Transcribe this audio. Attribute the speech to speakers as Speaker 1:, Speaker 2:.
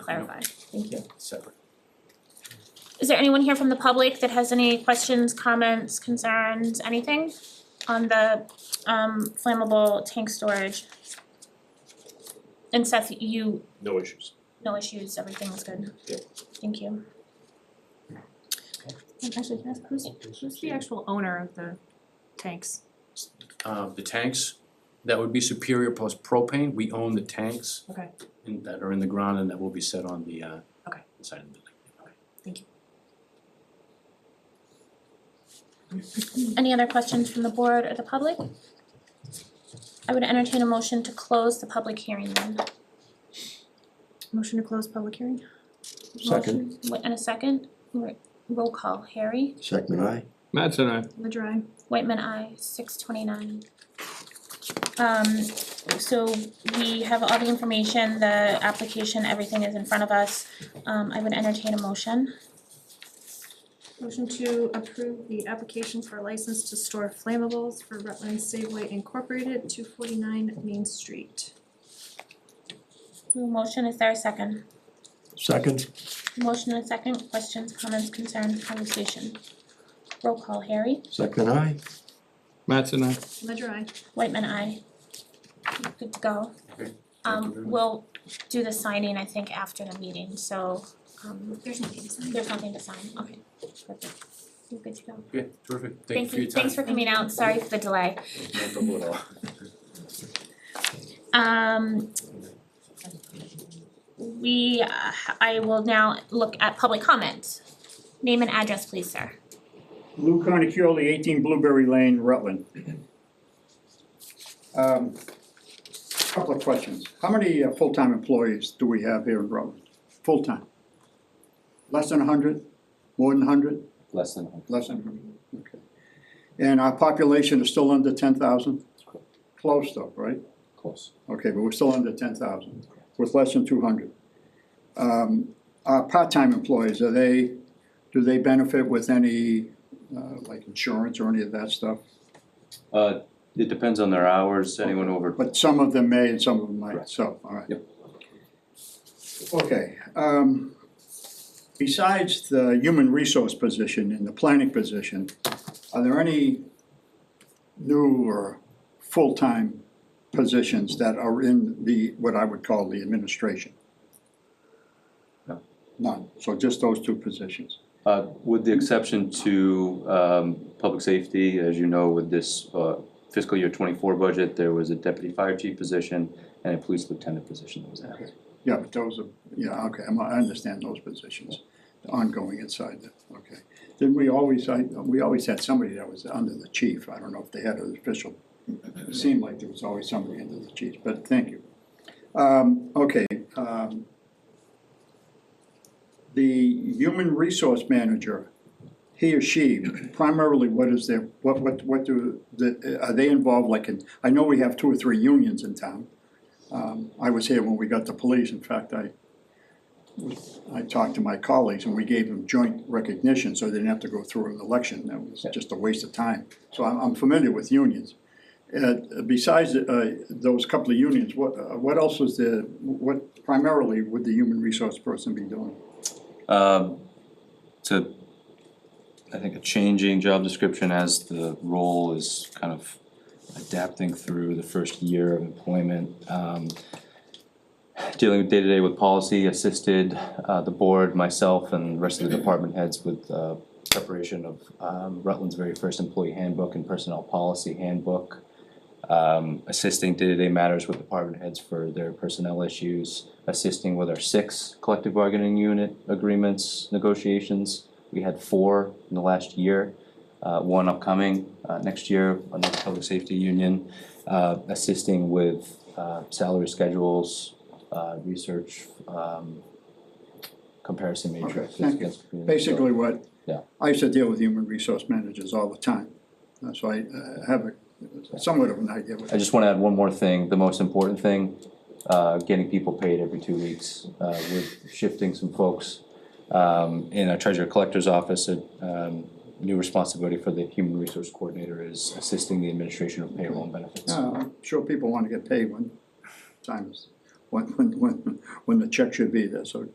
Speaker 1: clarify. Thank you.
Speaker 2: separate.
Speaker 1: Is there anyone here from the public that has any questions, comments, concerns, anything on the um flammable tank storage? And Seth, you,
Speaker 2: No issues.
Speaker 1: no issues, everything's good?
Speaker 2: Yeah.
Speaker 1: Thank you. And Actually, can I ask who's
Speaker 3: Who's the actual owner of the tanks?
Speaker 2: Uh, the tanks, that would be Superior Post Propane, we own the tanks.
Speaker 3: Okay.
Speaker 2: And that are in the ground and that will be set on the uh.
Speaker 3: Okay.
Speaker 2: Side of the building.
Speaker 1: Any other questions from the board or the public? I would entertain a motion to close the public hearing then.
Speaker 3: Motion to close public hearing?
Speaker 4: Second.
Speaker 1: Wait, and a second, Ro- roll call, Harry,
Speaker 4: Second, aye.
Speaker 5: Mattson, aye.
Speaker 3: Ledger I.
Speaker 1: Whitman, I, six twenty-nine. Um, so we have all the information, the application, everything is in front of us. Um, I would entertain a motion.
Speaker 3: Motion to approve the application for license to store flammables for Rutland Safeway Incorporated, two forty-nine Main Street.
Speaker 1: Motion, is there a second?
Speaker 4: Second,
Speaker 1: Motion and a second, questions, comments, concerns, conversation. Roll call, Harry,
Speaker 4: second, aye.
Speaker 5: Mattson, aye.
Speaker 3: Ledger I.
Speaker 1: Whitman, I. Good to go.
Speaker 2: Okay, thank you
Speaker 1: Um
Speaker 2: very much.
Speaker 1: we'll do the signing, I think, after the meeting, so um
Speaker 3: There's nothing to sign.
Speaker 1: there's nothing to sign, okay, perfect. You're good to go.
Speaker 2: Okay, terrific, thank you for your time.
Speaker 1: Thanks for coming out, sorry for the delay.
Speaker 2: No trouble at all.
Speaker 1: Um we, uh, I will now look at public comment. Name and address, please, sir.
Speaker 6: Lou Carnicoli, eighteen Blueberry Lane, Rutland. Um, Couple of questions. How many uh, full-time employees do we have here in Rutland? Full-time? Less than hundred? More than hundred?
Speaker 7: less than a hundred.
Speaker 6: Less than hundred, okay. And our population is still under ten thousand? Close though, right?
Speaker 7: close.
Speaker 6: Okay, but we're still under ten thousand, with less than two hundred. Um, our part-time employees, are they, do they benefit with any, uh, like insurance or any of that stuff?
Speaker 7: Uh, it depends on their hours, anyone over,
Speaker 6: But some of them may and some of them might,
Speaker 7: Correct.
Speaker 6: so, all right.
Speaker 7: Yep.
Speaker 6: Okay, um, besides the human resource position and the planning position, are there any new or full-time positions that are in the, what I would call the administration?
Speaker 7: No.
Speaker 6: None, so just those two positions.
Speaker 7: uh, with the exception to, um, public safety, as you know, with this, uh, fiscal year twenty-four budget, there was a deputy fire chief position and a police lieutenant position that was added.
Speaker 6: Yeah, but those are, yeah, okay, I'm- I understand those positions, the ongoing inside, the- okay. Then we always, I, we always had somebody that was under the chief, I don't know if they had an official, it seemed like there was always somebody under the chief, but thank you. Um, okay, um, the human resource manager, he or she, primarily what is their, what, what, what do, the- are they involved like in, I know we have two or three unions in town. Um, I was here when we got the police, in fact, I, I talked to my colleagues and we gave them joint recognition, so they didn't have to go through an election, that was just a waste of time. So I'm, I'm familiar with unions. Uh, besides, uh, those couple of unions, what, uh, what else was the, what primarily would the human resource person be doing?
Speaker 7: Um, to, I think a changing job description as the role is kind of adapting through the first year of employment. Um, dealing with day-to-day with policy, assisted, uh, the board, myself, and the rest of the department heads with, uh, preparation of, um, Rutland's very first employee handbook and personnel policy handbook. Um, assisting day-to-day matters with department heads for their personnel issues, assisting with our six collective bargaining unit agreements, negotiations. We had four in the last year, uh, one upcoming, uh, next year, another public safety union. Uh, assisting with, uh, salary schedules, uh, research, um, comparison matrix.
Speaker 6: thank you. Basically what,
Speaker 7: Yeah.
Speaker 6: I used to deal with human resource managers all the time, Uh, so I uh, have a, somewhat of an idea what.
Speaker 7: I just wanna add one more thing, the most important thing, uh, getting people paid every two weeks, uh, with shifting some folks. Um, in our treasurer collector's office, a, um, new responsibility for the human resource coordinator is assisting the administration of payroll and benefits.
Speaker 6: Yeah, I'm sure people want to get paid when time is, when, when, when, when the check should be there, so